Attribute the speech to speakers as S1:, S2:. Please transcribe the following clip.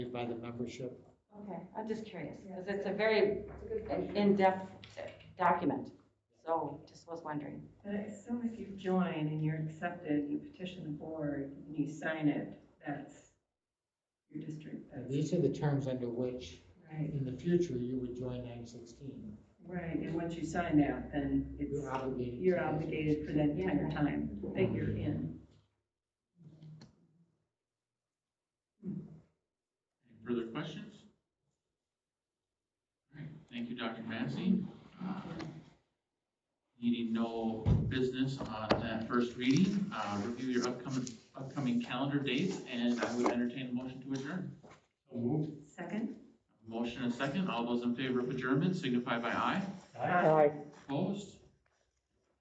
S1: determined by the membership.
S2: Okay, I'm just curious, because it's a very in-depth document, so just was wondering.
S3: But I assume if you join and you're accepted, you petition the board, and you sign it, that's your district,
S1: And
S3: that's,
S1: these are the terms under which,
S3: right,
S1: in the future, you would join nine sixteen.
S3: right, and once you sign that, then it's,
S1: You're obligated. to
S3: you're
S1: this.
S3: obligated for that entire time that you're in.
S4: Any further questions? All right, Thank you, Dr. Massey. Uh, Needing no business on that first reading, uh, review your upcoming, upcoming calendar dates, and I would entertain a motion to adjourn.
S3: Second?
S4: Motion and second, all those in favor of adjournment signify by aye. Opposed?